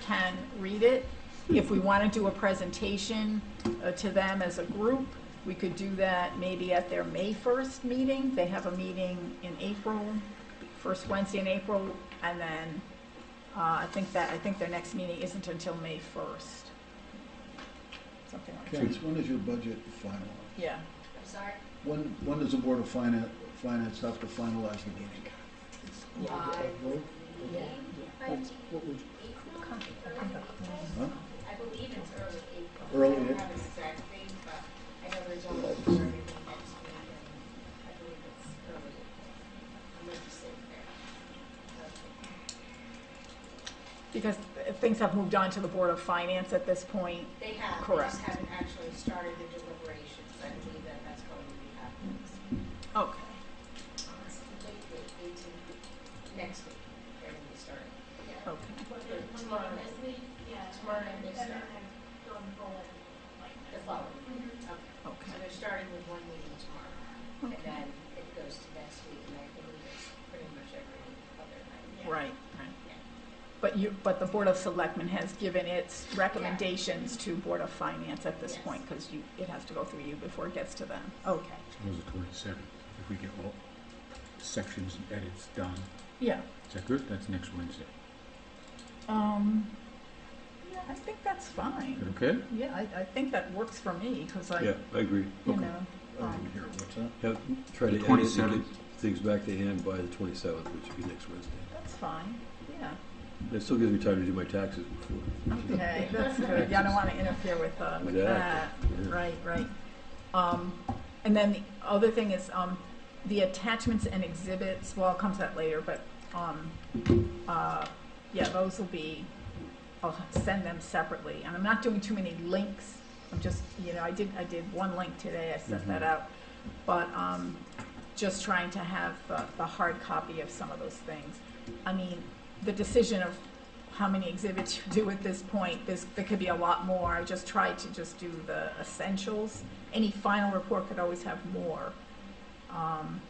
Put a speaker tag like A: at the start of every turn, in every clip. A: can read it. If we want to do a presentation uh, to them as a group, we could do that maybe at their May 1st meeting. They have a meeting in April, first Wednesday in April, and then uh, I think that, I think their next meeting isn't until May 1st. Something like that.
B: Terrence, when is your budget finalized?
A: Yeah.
C: I'm sorry,
B: When, when does the Board of Finance, Finance have to finalize the meeting?
C: I believe
A: Yeah.
C: by April, early April.
B: Huh?
C: I believe it's early April.
B: Early
C: I don't
B: April.
C: have an exact date, but I know they're jumping for everything next week, and I believe it's early April. I'm not just sitting there.
A: Because uh, things have moved on to the Board of Finance at this point.
C: They have, they
A: Correct.
C: just haven't actually started the deliberations. I believe that that's going to be happening.
A: Okay.
C: It's late, late, eighteen, next week, they're going to be starting. Yeah.
A: Okay.
C: Tomorrow, tomorrow night they start, the following week. Okay. So
A: Okay.
C: they're starting with one meeting tomorrow, and
A: Okay.
C: then it goes to next week, and I believe it's pretty much every other night.
A: Right, right. But you, but the Board of Selectmen has given its recommendations to Board of Finance at this
C: Yes.
A: point, because you, it has to go through you before it gets to them. Okay.
D: It was the twenty-seventh, if we get all sections and edits done.
A: Yeah.
D: Is that good? That's next Wednesday.
A: Um, yeah, I think that's
D: Is that
A: fine.
D: okay?
A: Yeah, I, I think that works for me, because I,
E: Yeah,
A: you
E: I agree.
D: okay.
A: know,
B: I
A: um,
B: didn't hear, what's that?
E: Have, try to
D: The
E: edit and
D: 27th.
E: get things back to hand by the twenty-seventh, which would be next Wednesday.
A: that's fine, yeah.
E: That still gives me time to do my taxes before.
A: Okay, that's good. Yeah, I don't want to interfere with, uh, with that.
E: Exactly, yeah.
A: Right, right. Um, and then the other thing is, um, the attachments and exhibits, well, it comes out later, but, um, uh, yeah, those will be, I'll send them separately. And I'm not doing too many links. I'm just, you know, I did, I did one link today. I sent that
E: Mhm.
A: out. But, um, just trying to have the, the hard copy of some of those things. I mean, the decision of how many exhibits you do at this point, there's, there could be a lot more. I just tried to just do the essentials. Any final report could always have more. Um,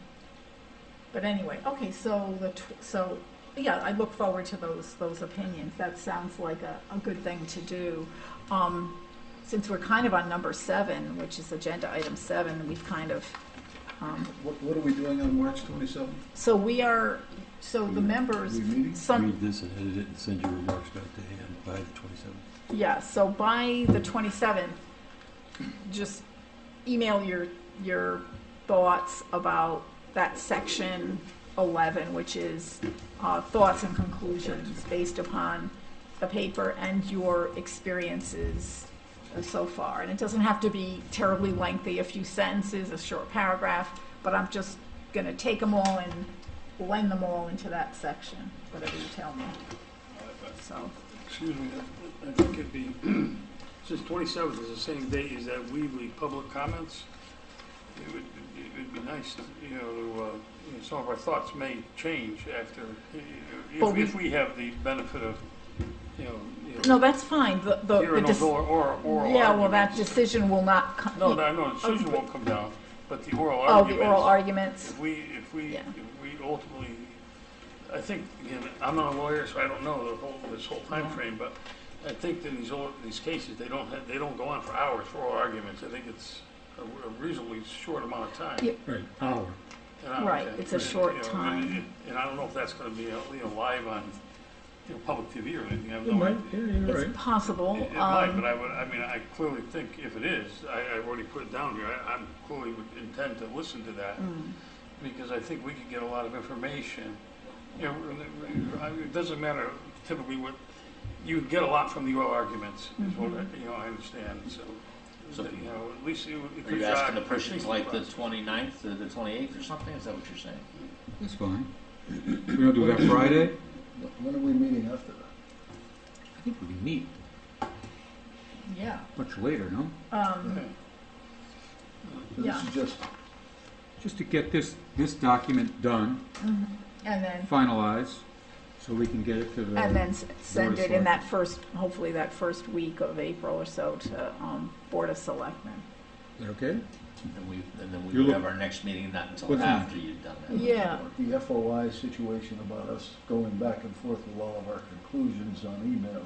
A: But anyway, okay, so the, tw- so, yeah, I look forward to those, those opinions. That sounds like a, a good thing to do. Um, Since we're kind of on number seven, which is agenda item seven, we've kind of, um,
B: What, what are we doing on March twenty-seventh?
A: so we are, so the members,
B: we meeting?
A: some,
E: Read this and edit it and send your remarks back to hand by the twenty-seventh.
A: yeah, so by the 27th, just email your, your thoughts about that section 11, which is uh, thoughts and conclusions based upon the paper and your experiences uh, so far. And it doesn't have to be terribly lengthy, a few sentences, a short paragraph, but I'm just going to take them all and blend them all into that section, whatever you tell me. So,
F: Excuse me, I I think it'd be, since 27th is the same date as that Weebly public comments, it would, it would be nice, to, you know, to, uh, you know, some of our thoughts may change after, you know,
A: Well,
F: if
A: we-
F: if we have the benefit of, you know, you know,
A: no, that's fine. The, the,
F: hearing
A: the
F: those
A: dis-
F: or, or oral
A: Yeah, well, that
F: arguments.
A: decision will not come.
F: No, no, no, Susan won't come down, but the oral
A: Oh,
F: arguments.
A: the oral arguments.
F: If we, if we,
A: Yeah.
F: if we ultimately, I think, again, I'm not a lawyer, so I don't know the whole, this whole time
A: Yeah.
F: frame. but I think that these, old- these cases, they don't, have- they don't go on for hours for oral arguments. I think it's a a reasonably short amount of time.
A: Yeah.
D: Right, hour.
F: And I-
A: Right, it's a
F: and,
A: short
F: you know,
A: time.
F: and- And I don't know if that's going to be, you know, live on, you know, public TV or anything. I have
D: It
F: no
D: might,
F: idea.
D: yeah, you're right.
A: It's possible. um,
F: It it might, but I would, I mean, I clearly think if it is, I, I already put it down here, I, I'm clearly would intend to listen to that. Because I think we could get a lot of information. You know, really- I- it doesn't matter typically what, you get a lot from the oral arguments, is what, I- you know, I understand, so.
G: So-
F: You know, at least it would. it
G: Are you
F: could
G: asking to
F: jog
G: push it to
F: thinking
G: like the
F: process.
G: 29th or the 28th or something? Is that what you're saying?
D: That's fine. We're gonna do that Friday?
B: When are we meeting after that?
D: I think we can meet
A: Yeah.
D: much later, no?
A: Um,
F: Okay.
B: So
A: Yeah.
B: This is just,
D: Just to get this, this document done,
A: and then,
D: finalized, so we can get it to the.
A: and then s- send
D: Board of
A: it in that first, hopefully that first week of April or so to, um, Board of Selectmen.
D: Is that okay?
G: And we, and then
D: You
G: we would
D: look-
G: have our next meeting not until
D: What's that?
G: after you've done that.
A: Yeah.
B: the FOI situation about us going back and forth with all of our conclusions on email